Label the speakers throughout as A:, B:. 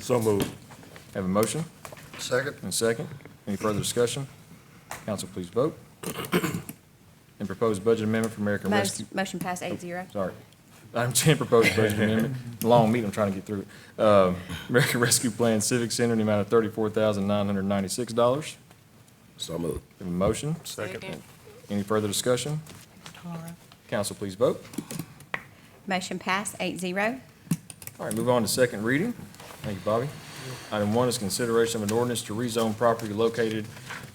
A: So moved.
B: Have a motion
C: Second?
B: and a second. Any further discussion? Council, please vote. And proposed budget amendment for American Rescue.
D: Motion motion passed eight zero.
B: Oh, Sorry. Item 10, proposed budget amendment. Long meeting, I'm trying to get through it. Um, American Rescue Plan Civic Center in the amount of $34,996.
A: So moved.
B: Have a motion?
A: Second.
B: Any further discussion? Council, please vote.
D: Motion passed eight zero.
B: All right, move on to second reading. Thank you, Bobby. Item one is consideration of an ordinance to rezone property located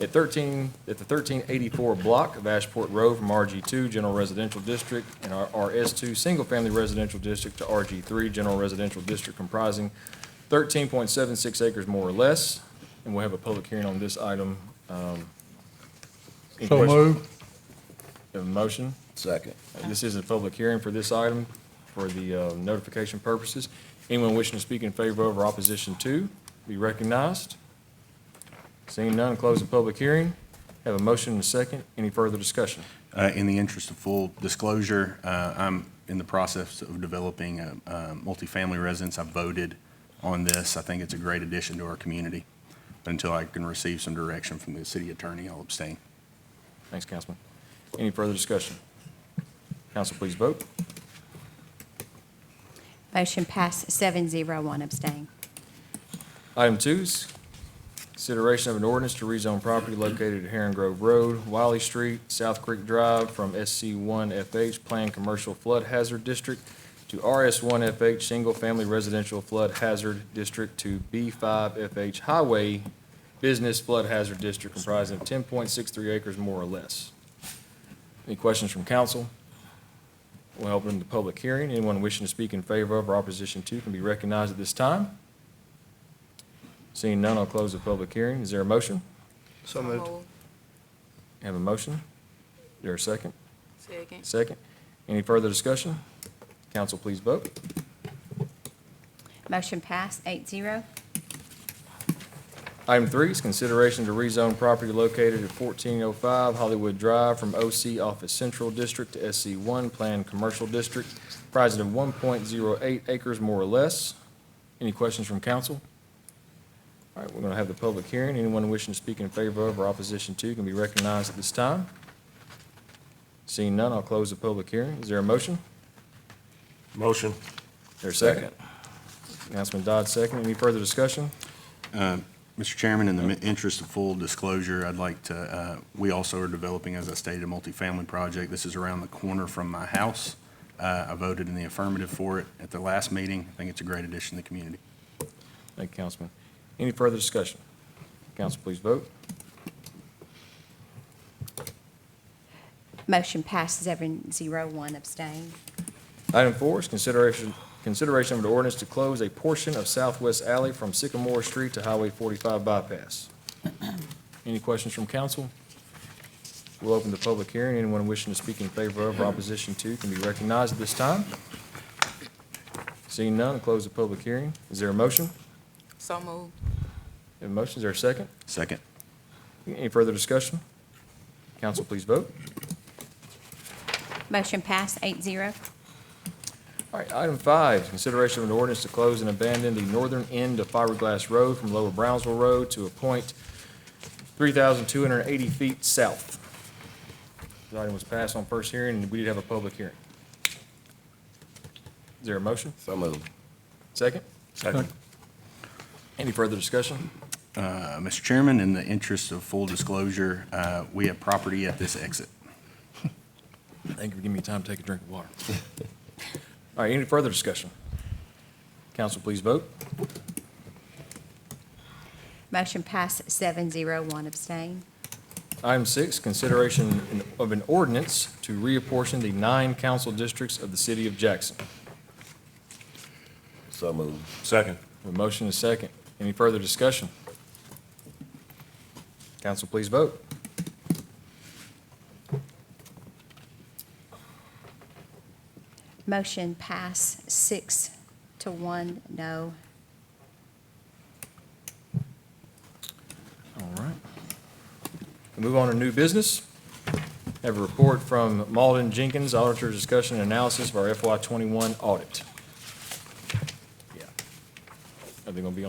B: at thirteen, at the thirteen eighty-four block of Ashport Road from RG two General Residential District and our RS two Single Family Residential District to RG three General Residential District comprising thirteen point seven six acres more or less. And we'll have a public hearing on this item. um, any
E: So
B: questions?
E: moved.
B: Have a motion?
A: Second.
B: Uh, This is a public hearing for this item for the uh, notification purposes. Anyone wishing to speak in favor of or opposition to be recognized. Seeing none, close the public hearing. Have a motion and a second. Any further discussion?
F: Uh, In the interest of full disclosure, uh, I'm in the process of developing a a multifamily residence. I voted on this. I think it's a great addition to our community. But until I can receive some direction from the city attorney, I'll abstain.
B: Thanks, Councilman. Any further discussion? Council, please vote.
D: Motion passed seven zero, one abstain.
B: Item two is consideration of an ordinance to rezone property located at Heron Grove Road, Wiley Street, South Creek Drive from SC1FH Planned Commercial Flood Hazard District to RS1FH Single Family Residential Flood Hazard District to B5FH Highway Business Flood Hazard District comprising of 10.63 acres more or less. Any questions from council? We'll open the public hearing. Anyone wishing to speak in favor of or opposition to can be recognized at this time. Seeing none, I'll close the public hearing. Is there a motion?
C: So moved.
B: Have a motion? Is there a second?
G: Second.
B: Second. Any further discussion? Council, please vote.
D: Motion passed eight zero.
B: Item three is consideration to rezone property located at 1405 Hollywood Drive from OC Office Central District to SC1 Planned Commercial District, comprising of 1.08 acres more or less. Any questions from council? All right, we're going to have the public hearing. Anyone wishing to speak in favor of or opposition to can be recognized at this time. Seeing none, I'll close the public hearing. Is there a motion?
A: Motion.
B: There's a second. Councilman Dodd, second. Any further discussion?
F: Mr. Uh, Chairman, in the mi- interest of full disclosure, I'd like to, uh, we also are developing, as I stated, a multifamily project. This is around the corner from my house. Uh, I voted in the affirmative for it at the last meeting. I think it's a great addition to the community.
B: Thank you, Councilman. Any further discussion? Council, please vote.
D: Motion passed seven zero, one abstain.
B: Item four is consideration, consideration of an ordinance to close a portion of Southwest Alley from Sycamore Street to Highway 45 bypass. Any questions from council? We'll open the public hearing. Anyone wishing to speak in favor of or opposition to can be recognized at this time. Seeing none, close the public hearing. Is there a motion?
G: So moved.
B: Have a motion, is there a second?
F: Second.
B: Any further discussion? Council, please vote.
D: Motion passed eight zero.
B: All right, item five, is consideration of an ordinance to close and abandon the northern end of Fiberglass Road from Lower Brownsville Road to a point 3,280 feet south. This item was passed on first hearing, and we did have a public hearing. Is there a motion?
A: So moved.
B: Second?
A: Second.
B: Any further discussion?
F: Uh, Mr. Chairman, in the interest of full disclosure, uh, we have property at this exit.
B: Thank you for giving me time to take a drink of water. All right, any further discussion? Council, please vote.
D: Motion passed seven zero, one abstain.
B: Item six, consideration of an ordinance to reapportion the nine council districts of the city of Jackson.
A: So moved. Second.
B: A motion is second. Any further discussion? Council, please vote.
D: Motion passed six to one, no.
B: All right. We Move on to new business. Have a report from Malden Jenkins, Auditor's Discussion and Analysis of our FY twenty-one audit. Yeah. Are they gonna be on